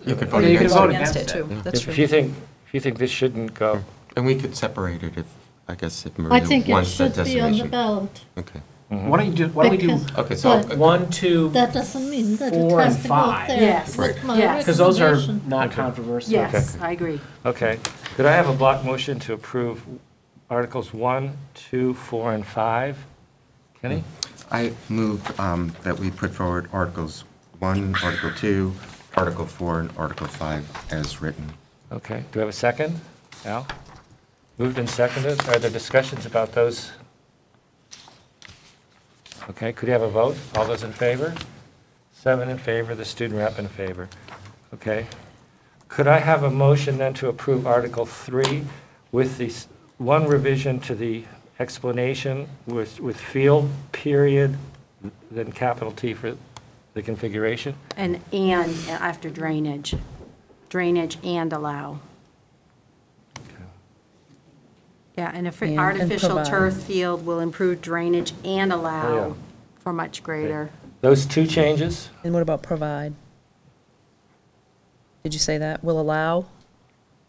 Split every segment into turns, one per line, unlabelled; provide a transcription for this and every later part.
Oh, You could
Or
vote
you can
against
vote
it.
against it, too. That's
If
true.
you think, if you think this shouldn't go,
And we could separate it if, I guess, if
I
Maria
think it
wants that
should be on the
designation.
ballot.
Okay.
Why don't you do, why don't we do
because-
Okay, so,
but
uh,
one, two,
That doesn't mean that it
four
has
and
to go
five.
there.
Yes.
That's
Right.
my
Yes.
because those are
recommendation.
not controversial.
Yes, I agree.
okay. Could I have a block motion to approve Articles 1, 2, 4, and 5? Kenny?
I move um, that we put forward Articles 1, Article 2, Article 4, and Article 5 as written.
Okay, do we have a second? Al? Moved and seconded, are there discussions about those? Okay, could you have a vote? All those in favor? Seven in favor, the student rep in favor. Okay. Could I have a motion then to approve Article 3 with the, s- one revision to the explanation with, with field, period, then capital T for the configuration?
And, and after drainage, drainage and allow. Yeah, and if
And
artificial
provide.
turf field will improve drainage and allow for much greater.
Those two changes?
And what about provide? Did you say that? Will allow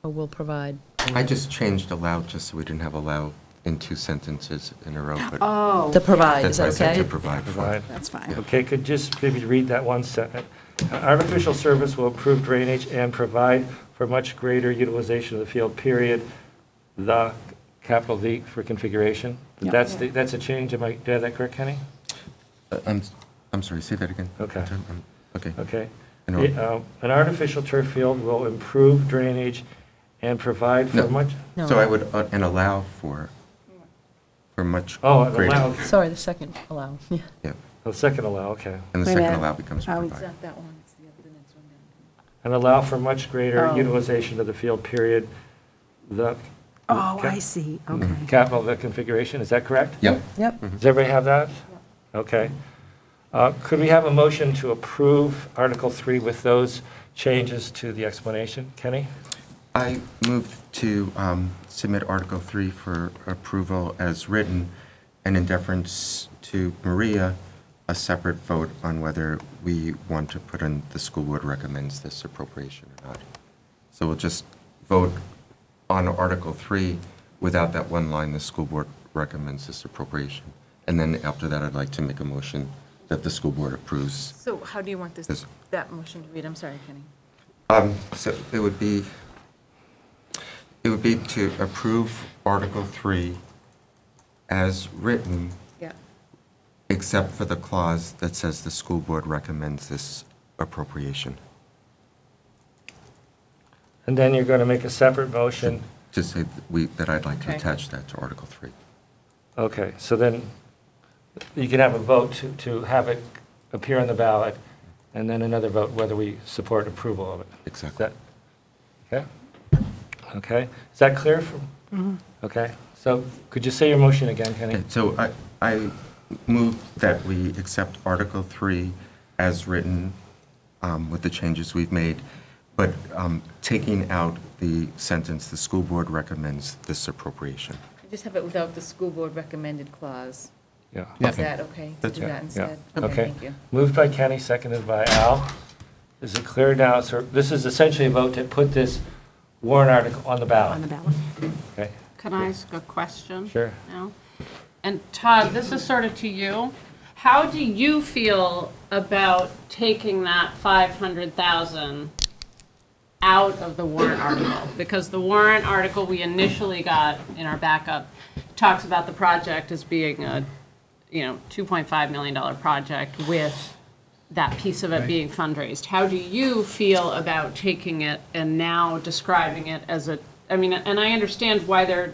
or will provide?
I just changed allow, just so we didn't have allow in two sentences in a row,
Ah,
but
Oh,
The provide, is
that's what I
that
said to
okay?
provide for.
Provide.
that's fine.
Okay, could just maybe read that one sentence. Artificial service will improve drainage and provide for much greater utilization of the field, period, the, capital V for configuration. That's, the- that's a change, am I, did I have that correct, Kenny?
Uh, I'm, I'm sorry, say that again.
Okay.
Um, Okay.
Okay.
No.
The, uh, An artificial turf field will improve drainage and provide for
No.
much,
No.
So I would, uh, and allow for, for much
oh, and
greater.
allow,
Sorry, the second allow. Yeah.
Yeah,
the second allow, okay.
and the
Wait a
second
minute.
allow becomes
Um,
provide.
that one, it's the other, the next one down.
And allow for much greater
Oh.
utilization of the field, period, the,
Oh, I see, okay.
capital, the configuration, is that correct?
Yep.
Yep.
Does everybody have that? Okay. Uh, Could we have a motion to approve Article 3 with those changes to the explanation? Kenny?
I move to um, submit Article 3 for approval as written, and in deference to Maria, a separate vote on whether we want to put in, the school board recommends this appropriation or not. So we'll just vote on Article 3 without that one line, the school board recommends this appropriation. And then after that, I'd like to make a motion that the school board approves
So how do you want this,
Yes.
that motion to read? I'm sorry, Kenny.
Um, So it would be, it would be to approve Article 3 as written,
Yeah.
except for the clause that says the school board recommends this appropriation.
And then you're going to make a separate motion.
Just say that we, that I'd like to
Okay.
attach that to Article 3.
Okay, so then you can have a vote to to have it appear on the ballot, and then another vote whether we support approval of it. Is
Exactly.
that, okay? Okay, is that clear? from- Okay, so could you say your motion again, Kenny?
Okay, So I, I move that we accept Article 3 as written um, with the changes we've made, but um, taking out the sentence, the school board recommends this appropriation.
Just have it without the school board recommended clause.
Yeah.
Is that okay? to
That's
Do
right.
that
Yeah,
instead?
okay.
Thank you.
Moved by Kenny, seconded by Al. Is it clear now? So this is essentially a vote to put this warrant article on the
On the
ballot.
ballot.
Okay,
Can I ask a question?
Sure.
No? And Todd, this is sort of to you. How do you feel about taking that 500,000 out of the warrant article? Because the warrant article we initially got in our backup talks about the project as being a, you know, $2.5 million project with that piece of it being fundraised. How do you feel about taking it and now describing it as a, I mean, and I understand why they're,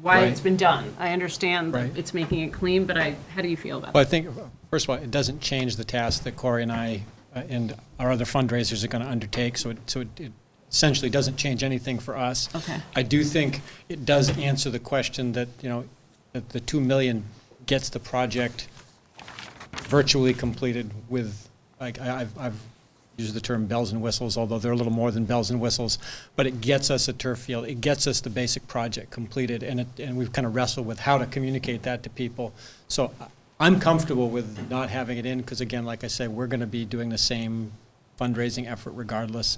why it's
Right.
been done. I understand that
Right.
it's making it clean, but I, how do you feel about
Well, I
it?
think, first of all, it doesn't change the task that Corey and I uh, and our other fundraisers are going to undertake, so it, so it it essentially doesn't change anything for us.
Okay.
I do think it does answer the question that, you know, that the 2 million gets the project virtually completed with, like, I- I've, I've used the term bells and whistles, although they're a little more than bells and whistles, but it gets us a turf field, it gets us the basic project completed, and it, and we've kind of wrestled with how to communicate that to people. So I- I'm comfortable with not having it in, because again, like I said, we're going to be doing the same fundraising effort regardless.